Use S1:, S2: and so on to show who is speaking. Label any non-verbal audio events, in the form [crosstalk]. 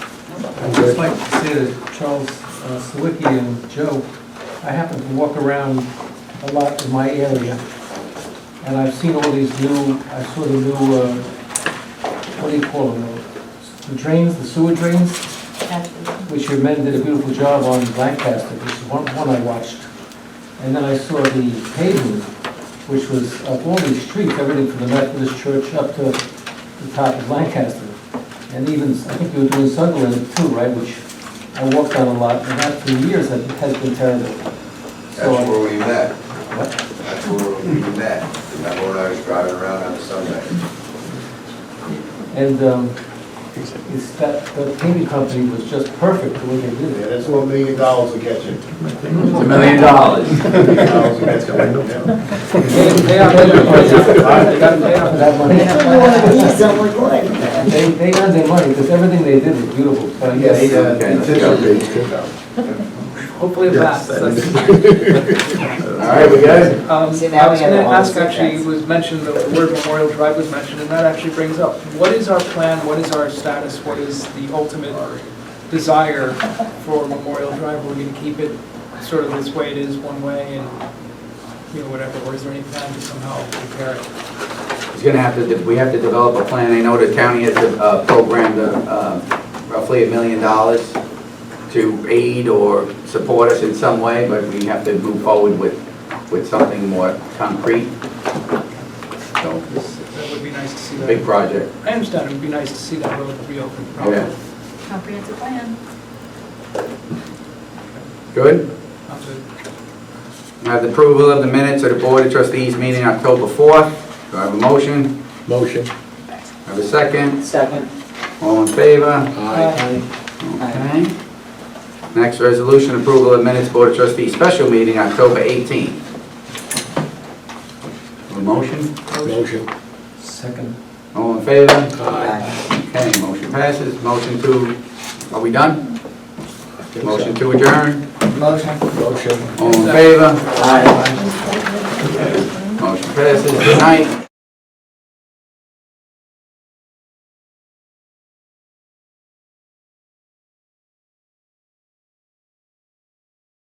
S1: I'd just like to say that Charles uh, Sawicki and Joe, I happen to walk around a lot in my area, and I've seen all these new, I saw the new, uh, what do you call them, uh, the drains, the sewer drains, which your men did a beautiful job on Lancaster, which is one, one I watched. And then I saw the paving, which was up all these streets, everything from the Methodist Church up to the top of Lancaster. And even, I think you were doing Sunderland too, right, which I walked on a lot, and that for years has has been terrible. So
S2: That's
S1: I-
S2: where we met.
S1: What?
S2: That's where we met. Remember when I was driving around on Sunday?
S1: And, um, it's that, the paving company was just perfect the way they did
S3: Yeah,
S1: it.
S3: that's one million dollars will get you.
S4: It's a million dollars.
S3: Million dollars will get you.
S1: They, they are, they got paid off for that money. They, they earned their money, because everything they did was beautiful, so yes.
S2: They, uh, they
S4: let's
S2: did
S4: go.
S2: something. All
S5: Hopefully it lasts. That's-
S6: [laughs]
S2: right, we good?
S5: Um, I was
S6: See, now we have
S5: gonna
S6: all the
S5: ask, actually,
S6: setbacks.
S5: it was mentioned, the word Memorial Drive was mentioned, and that actually brings up, what is our plan, what is our status, what is the ultimate desire for Memorial Drive? Are we gonna keep it sort of this way it is, one way, and, you know, whatever, or is there any plan to somehow repair it?
S4: It's gonna have to, we have to develop a plan. I know the county has uh, programmed uh, roughly a million dollars to aid or support us in some way, but we have to move forward with, with something more concrete. So, it's
S5: That would be nice to see
S4: a big
S5: that.
S4: project.
S5: I understand, it would be nice to see that road reopened.
S4: Yeah.
S6: Comprehensive plan.
S4: Good?
S5: Not to-
S4: I have the approval of the minutes of the Board of Trustees meeting October 4th. Do I have a motion? Motion. I have a second?
S6: Second.
S4: All in favor?
S6: Aye.
S4: Next, resolution approval of minutes, Board of Trustees, special meeting, October 18th. A motion?
S3: Motion.
S1: Second.
S4: All in favor?
S6: Aye.
S4: Okay, motion passes. Motion to, are we done? Motion to adjourn?
S6: Motion.
S3: Motion.
S4: All in favor?
S6: Aye.
S4: Motion passes. Good night.